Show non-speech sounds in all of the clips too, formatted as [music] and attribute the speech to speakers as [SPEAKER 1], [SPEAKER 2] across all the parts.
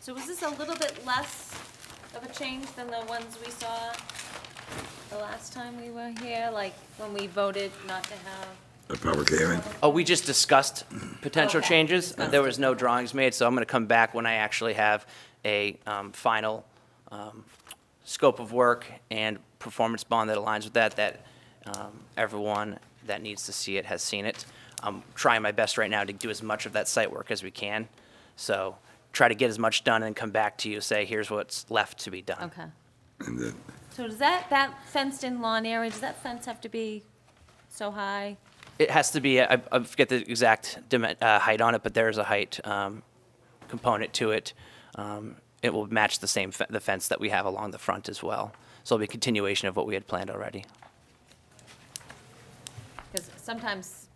[SPEAKER 1] So was this a little bit less of a change than the ones we saw the last time we were here? Like, when we voted not to have,
[SPEAKER 2] A public hearing?
[SPEAKER 3] Oh, we just discussed potential
[SPEAKER 1] Okay.
[SPEAKER 3] changes. Uh, There was no drawings made, so I'm going to come back when I actually have a um, final um, scope of work and performance bond that aligns with that, that um, everyone that needs to see it has seen it. I'm trying my best right now to do as much of that site work as we can. So try to get as much done and come back to you, say, here's what's left to be done.
[SPEAKER 1] okay.
[SPEAKER 2] And then,
[SPEAKER 1] So does that, that fenced-in lawn area, does that fence have to be so high?
[SPEAKER 3] It has to be, I, I forget the exact dimen- uh, height on it, but there is a height um, component to it. Um, it will match the same fe- the fence that we have along the front as well. So it'll be a continuation of what we had planned already.
[SPEAKER 1] Because sometimes,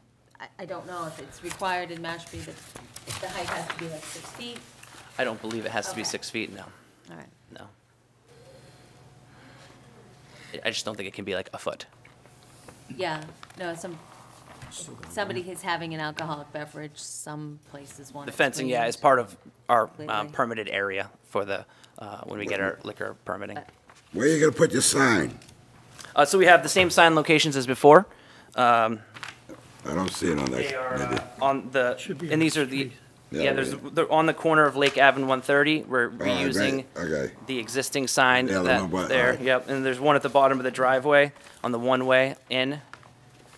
[SPEAKER 1] I, I don't know if it's required in Mashpee that if the height has to be like six feet.
[SPEAKER 3] I don't believe it has to be
[SPEAKER 1] Okay.
[SPEAKER 3] six feet. No,
[SPEAKER 1] All right.
[SPEAKER 3] no. I- I just don't think it can be like a foot.
[SPEAKER 1] Yeah, no, some, somebody is having an alcoholic beverage, some places want
[SPEAKER 3] The
[SPEAKER 1] it
[SPEAKER 3] fencing, yeah,
[SPEAKER 1] screened,
[SPEAKER 3] is part of our uh,
[SPEAKER 1] Completely.
[SPEAKER 3] permitted area for the uh, when we get our liquor
[SPEAKER 1] Uh,
[SPEAKER 3] permitting.
[SPEAKER 2] where you gonna put your sign?
[SPEAKER 3] Uh, so we have the same sign locations as before.
[SPEAKER 2] I don't see it on that.
[SPEAKER 3] They are
[SPEAKER 2] maybe.
[SPEAKER 3] uh, on the,
[SPEAKER 4] Should be
[SPEAKER 3] and
[SPEAKER 4] on
[SPEAKER 3] these
[SPEAKER 4] the
[SPEAKER 3] are the,
[SPEAKER 2] Yeah,
[SPEAKER 3] yeah, there's,
[SPEAKER 2] yeah. Oh,
[SPEAKER 3] they're on the corner of Lake Ave and 130. We're
[SPEAKER 2] right,
[SPEAKER 3] reusing
[SPEAKER 2] okay.
[SPEAKER 3] the existing sign
[SPEAKER 2] Yeah, the one by-
[SPEAKER 3] that, there,
[SPEAKER 2] alright.
[SPEAKER 3] yep. And there's one at the bottom of the driveway on the one-way in.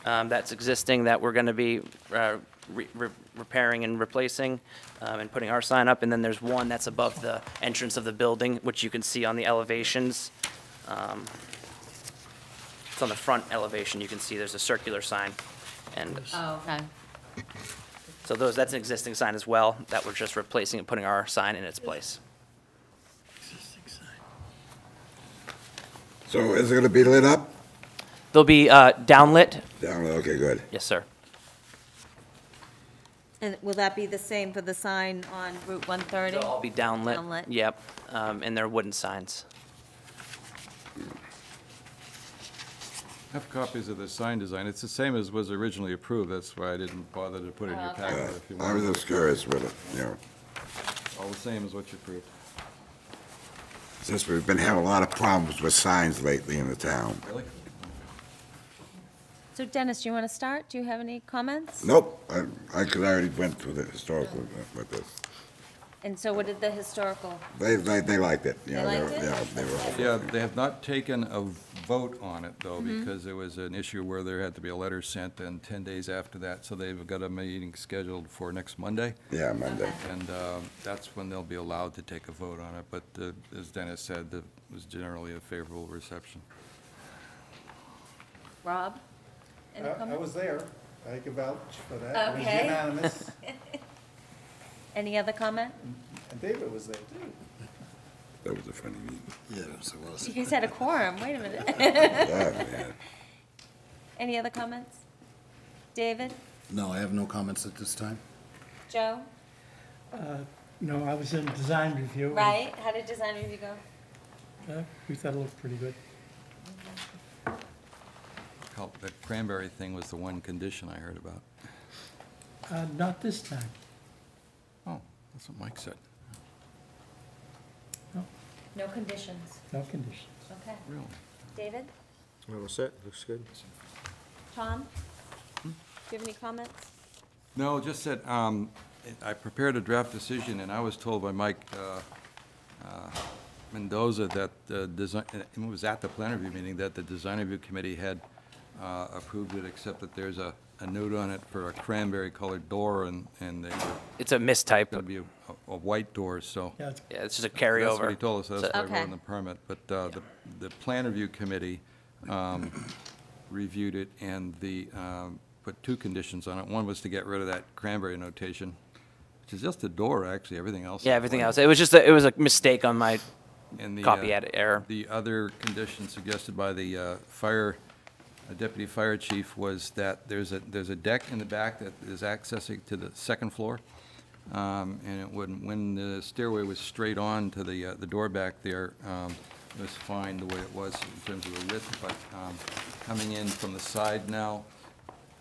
[SPEAKER 3] um, That's existing that we're going to be uh, re- re- repairing and replacing um, and putting our sign up. And then there's one that's above the entrance of the building, which you can see on the elevations. Um, It's on the front elevation. You can see there's a circular sign. And
[SPEAKER 1] Oh, okay,
[SPEAKER 3] so those, that's an existing sign as well, that we're just replacing and putting our sign in its place.
[SPEAKER 2] So is it gonna be lit up?
[SPEAKER 3] They'll be uh, downlit,
[SPEAKER 2] Down, okay, good.
[SPEAKER 3] yes, sir.
[SPEAKER 1] and will that be the same for the sign on Route one thirty?
[SPEAKER 3] They'll all be downlit.
[SPEAKER 1] Downlit.
[SPEAKER 3] Yep, um, and they're wooden signs.
[SPEAKER 5] Have copies of the sign design. It's the same as was originally approved. That's why I didn't bother to put it in your
[SPEAKER 1] Oh, okay.
[SPEAKER 5] packet. If you
[SPEAKER 2] Uh, I was
[SPEAKER 5] want,
[SPEAKER 2] just curious with it, you know,
[SPEAKER 5] it's all the same as what you approved.
[SPEAKER 2] since we've been having a lot of problems with signs lately in the town.
[SPEAKER 5] Really?
[SPEAKER 1] So Dennis, do you want to start? Do you have any comments?
[SPEAKER 2] Nope, I, I could already went through the historical uh, with this.
[SPEAKER 1] And so what did the historical,
[SPEAKER 2] They, they, they liked it, you
[SPEAKER 1] They
[SPEAKER 2] know, they were,
[SPEAKER 1] liked it?
[SPEAKER 2] yeah, they were.
[SPEAKER 5] Yeah, they have not taken a vote on it, though,
[SPEAKER 1] Mm-hmm.
[SPEAKER 5] because there was an issue where there had to be a letter sent, and 10 days after that, so they've got a meeting scheduled for next Monday,
[SPEAKER 2] Yeah, Monday.
[SPEAKER 5] and uh, that's when they'll be allowed to take a vote on it. But uh, as Dennis said, it was generally a favorable reception.
[SPEAKER 1] Rob? Any
[SPEAKER 6] Uh,
[SPEAKER 7] I I
[SPEAKER 1] comments?
[SPEAKER 7] was there. I can vouch for that. It was
[SPEAKER 1] Okay. [laughs]
[SPEAKER 7] unanimous.
[SPEAKER 1] Any other
[SPEAKER 6] [laughs]
[SPEAKER 1] comment?
[SPEAKER 7] And David was there, too.
[SPEAKER 2] That was a funny meeting.
[SPEAKER 1] You guys had a quorum, wait a minute.
[SPEAKER 6] [laughs]
[SPEAKER 2] Yeah, man.
[SPEAKER 1] Any other comments? David,
[SPEAKER 8] No, I have no comments at this time.
[SPEAKER 1] Joe,
[SPEAKER 4] No, I was in design review. and,
[SPEAKER 1] right? How did design review go?
[SPEAKER 4] uh, We thought it looked pretty good.
[SPEAKER 5] Col- That cranberry thing was the one condition I heard about.
[SPEAKER 4] Uh, Not this time.
[SPEAKER 5] Oh, that's what Mike said.
[SPEAKER 1] No conditions,
[SPEAKER 4] No condition.
[SPEAKER 1] okay.
[SPEAKER 5] Really?
[SPEAKER 1] David,
[SPEAKER 6] Well, that's it, looks good.
[SPEAKER 1] Tom?
[SPEAKER 3] Hmm?
[SPEAKER 1] Do you have any comments?
[SPEAKER 5] No, just that, um, I prepared a draft decision, and I was told by Mike, uh, uh, Mendoza that the design, and it was at the plan review meeting, that the design review committee had, uh, approved it, except that there's a, a note on it for a cranberry colored door, and, and they were
[SPEAKER 3] It's a
[SPEAKER 5] gonna
[SPEAKER 3] mistype,
[SPEAKER 5] be a, a white door, so.
[SPEAKER 4] Yeah, it's-
[SPEAKER 3] yeah, it's just a
[SPEAKER 5] That's what he
[SPEAKER 3] carryover.
[SPEAKER 5] told us, that's why we're
[SPEAKER 1] Okay.
[SPEAKER 5] on the permit, but uh, the, the plan review committee um, reviewed it and the, um, put two conditions on it. One was to get rid of that cranberry notation, which is just a door, actually, everything else. is
[SPEAKER 3] Yeah, everything
[SPEAKER 5] white.
[SPEAKER 3] else, it was just, a- it was a mistake on my,
[SPEAKER 5] And the,
[SPEAKER 3] Copy
[SPEAKER 5] uh,
[SPEAKER 3] edit error.
[SPEAKER 5] The other condition suggested by the uh, fire, uh, deputy fire chief was that there's a, there's a deck in the back that is accessing to the second floor. Um, And it wouldn't, when the stairway was straight on to the, uh, the door back there, um, it was fine the way it was in terms of the width, but um, coming in from the side now,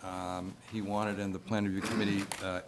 [SPEAKER 5] um, he wanted, and the plan review committee uh,